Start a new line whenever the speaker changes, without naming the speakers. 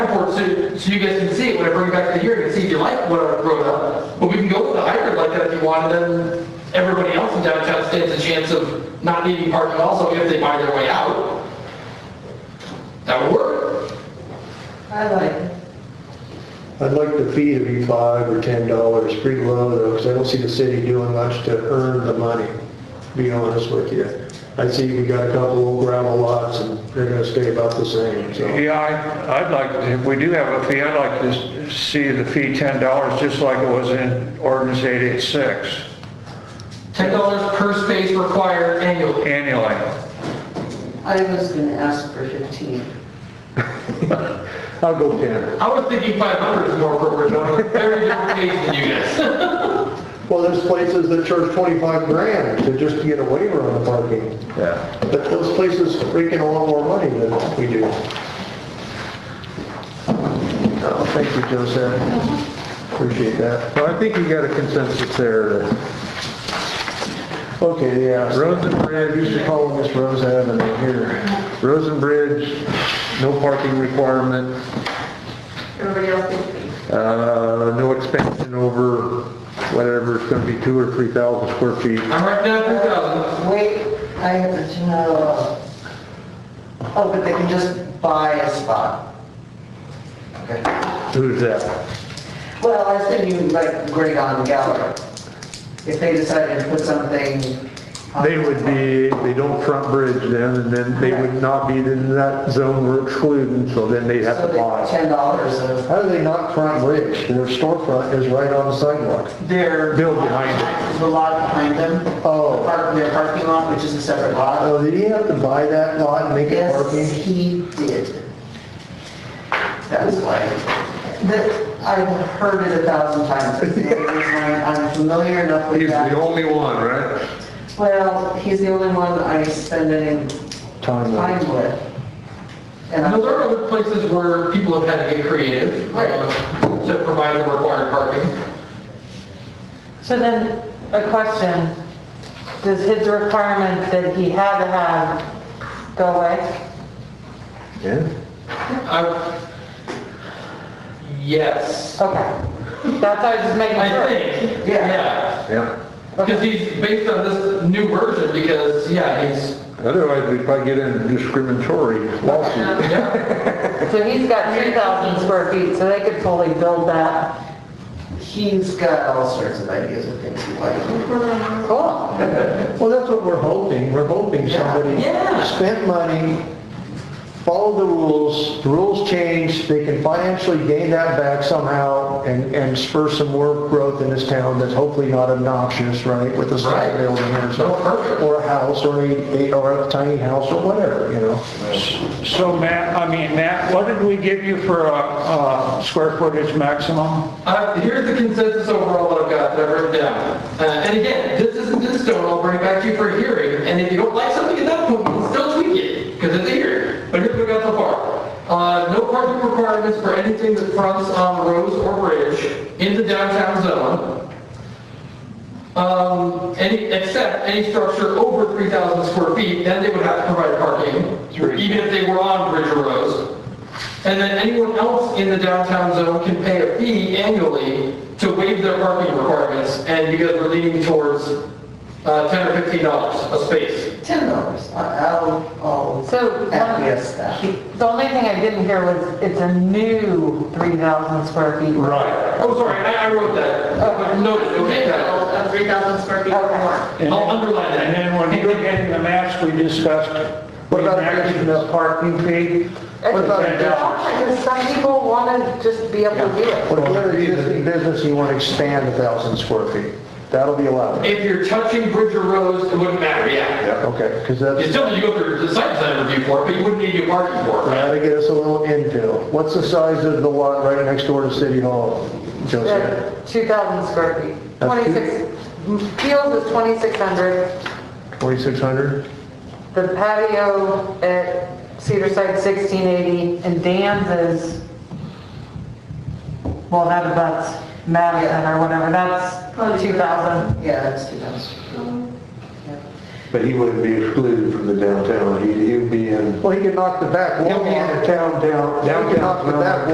it so you guys can see it when I bring it back to the hearing and see if you like what I wrote up. But we can go with a hybrid like that if you want, and then everybody else in downtown stands a chance of not needing parking also if they buy their way out. That would work.
I like it.
I'd like the fee to be five or ten dollars, pretty low though, because I don't see the city doing much to earn the money, to be honest with you. I see we got a couple old gravel lots and they're gonna stay about the same, so.
Yeah, I- I'd like, if we do have a fee, I'd like to s- see the fee $10, just like it was in ordinance 886
Ten dollars per space required annually.
annually.
I was gonna ask for 15.
I'll go ten.
I was thinking five hundred is more appropriate, but I'm a very different case than you guys.
Well, there's places that charge twenty-five grand to just get a waiver on the parking.
Yeah.
But those places raking a lot more money than we do. Oh, thank you, Joseph. Appreciate that.
Well, I think you got a consensus there.
Okay, yeah.
Roads and
I used to
bridge,
call them Miss Rose Avenue here.
roads and bridge, no parking requirement,
Everybody else think?
uh, no expansion over whatever, it's gonna be two or three thousand square feet.
I'm right down to thousand.
Wait, I have to know, oh, but they can just buy a spot.
Who's that?
Well, I said you like Greg on Gallery. If they decided to put something. uh, on-
They would be, they don't front bridge then, and then they would not be in that zone we're excluding, so then they'd have
So
to
they-
buy.
$10 of,
How do they not front bridge? Their storefront is right on the sidewalk.
their.
Build behind
The lot behind them.
Oh.
the park- Their parking lot, which is a separate
Uh,
lot.
Oh, did he have to buy that lot and make it
Yes,
parking?
he did. That's why, that, I've heard it a thousand times. I'm familiar enough with that.
only one, right?
Well, he's the only one I spend any
Time with.
time with. And
Now, there are
I,
other places where people have had to get creative
Right.
uh, to provide the required parking.
So then, a question, does his requirement that he had to have go away?
Yeah.
I- Yes,
Okay, that's, I was just making
I
sure.
think,
Yeah.
yeah.
Yeah.
Because he's based on this new version, because, yeah, he's,
Otherwise, we'd probably get into discriminatory lawsuit.
yeah,
So he's got 3,000 square feet, so they could fully build that.
he's got all sorts of ideas of things he likes.
Cool.
Well, that's what we're hoping. We're hoping somebody
Yeah.
spent money, followed the rules, the rules change, they can financially gain that back somehow and, and spur some more growth in this town that's hopefully not obnoxious, right, with a
Right.
side building or
No, perfect.
something, or a house, or a, a- or a tiny house, or whatever, you know?
So Matt, I mean, Matt, what did we give you for a uh, square footage maximum?
Uh, here's the consensus overall that I've got, that I've written down. Uh, and again, this isn't in stone, I'll bring it back to you for a hearing, and if you don't like something at that point, we can still tweak it, because it's a hearing. But here's what I got so far. Uh, no parking requirements for anything that fronts on roads or bridge in the downtown zone. Um, any, except any structure over 3,000 square feet, then they would have to provide parking, even if they were on bridge or roads. And then anyone else in the downtown zone can pay a fee annually to waive their parking requirements, and you guys are leaning towards uh, 10 or 15 dollars a space.
Ten dollars, I'll, I'll
So,
acquiesce that.
the only thing I didn't hear was it's a new 3,000 square feet.
Right.
Oh, sorry, I I wrote that. Uh, I Noted, okay, Kyle.
Of three thousand square feet
or more.
I'll underline
And
that.
then when you look at the maps we discussed,
What
we
about
maxed the parking fee.
What about-
And, uh,
Because some people want to just be able to do it.
What other existing business you want to expand a thousand square feet? That'll be allowed.
If you're touching bridge or roads, it wouldn't matter, yeah.
Okay, because
You
that's,
still need to go through the site plan review for it, but you wouldn't need your parking for it.
that'll get us a little infill. What's the size of the lot right next door to City Hall, Joseph?
Yeah, 2,000 square feet.
That's two-
26, Fields is 2,600.
2,600?
The patio at Cedar Site 1680 and Dan's is, well, that abuts Madison or whatever, that's 2,000.
Yeah, that's two thousand.
But he wouldn't be excluded from the downtown, he'd, he'd be in
Well, he could knock the back wall
He'll be in
off.
the town down,
He could knock the
downtown.
back